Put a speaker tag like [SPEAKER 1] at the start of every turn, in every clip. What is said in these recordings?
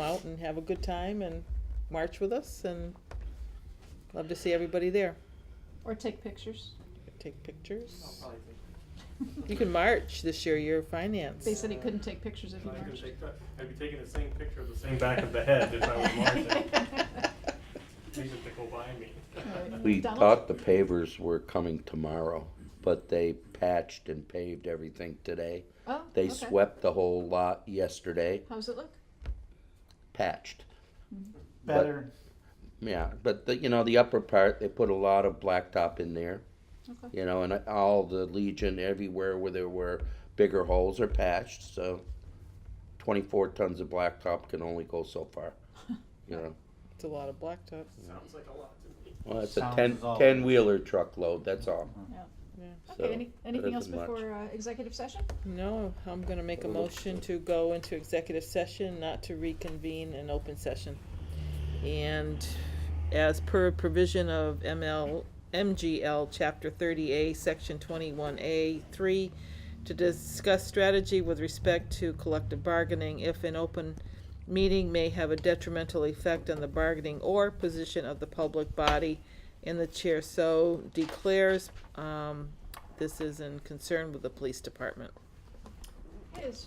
[SPEAKER 1] out and have a good time and march with us and love to see everybody there.
[SPEAKER 2] Or take pictures.
[SPEAKER 1] Take pictures.
[SPEAKER 3] probably take
[SPEAKER 1] You can march this year, you're finance.
[SPEAKER 2] They said he couldn't take pictures if he
[SPEAKER 3] I could
[SPEAKER 2] marched.
[SPEAKER 3] take that. I'd be taking the same picture of the same back of the head if I was marching. These are to go by me.
[SPEAKER 2] Right.
[SPEAKER 4] We
[SPEAKER 2] Donald?
[SPEAKER 4] thought the pavers were coming tomorrow, but they patched and paved everything today.
[SPEAKER 2] Oh,
[SPEAKER 4] They
[SPEAKER 2] okay.
[SPEAKER 4] swept the whole lot yesterday,
[SPEAKER 2] How's it look?
[SPEAKER 4] patched. But-
[SPEAKER 5] Better.
[SPEAKER 4] Yeah, but the, you know, the upper part, they put a lot of blacktop in there,
[SPEAKER 2] Okay.
[SPEAKER 4] you know, and all the Legion, everywhere where there were bigger holes are patched, so twenty-four tons of blacktop can only go so far, you know.
[SPEAKER 1] It's a lot of blacktop.
[SPEAKER 3] Sounds like a lot to me.
[SPEAKER 4] Well, it's a
[SPEAKER 5] Sounds
[SPEAKER 4] ten,
[SPEAKER 5] is all.
[SPEAKER 4] ten-wheeler truckload, that's all. So,
[SPEAKER 2] Okay, any, anything
[SPEAKER 4] doesn't
[SPEAKER 2] else
[SPEAKER 4] much.
[SPEAKER 2] before uh, executive session?
[SPEAKER 1] No, I'm gonna make a motion to go into executive session, not to reconvene an open session. And as per provision of ML, MGL, Chapter thirty A, Section twenty-one A, three, to discuss strategy with respect to collective bargaining if an open meeting may have a detrimental effect on the bargaining or position of the public body and the chair so declares, um, this is in concern with the police department.
[SPEAKER 2] Yes.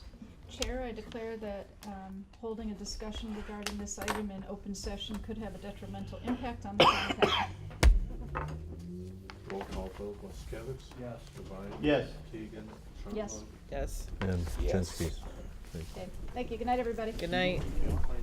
[SPEAKER 2] Chair, I declare that um, holding a discussion regarding this item in open session could have a detrimental impact on the public health.
[SPEAKER 6] Roll call vote, Moskowitz.
[SPEAKER 5] Yes.
[SPEAKER 6] Devine.
[SPEAKER 5] Yes.
[SPEAKER 6] Keegan.
[SPEAKER 2] Yes.
[SPEAKER 1] Yes.
[SPEAKER 7] And
[SPEAKER 4] Yes.
[SPEAKER 7] Jansky.
[SPEAKER 2] Okay. Thank you. Good night, everybody.
[SPEAKER 1] Good night.
[SPEAKER 6] Trumbull.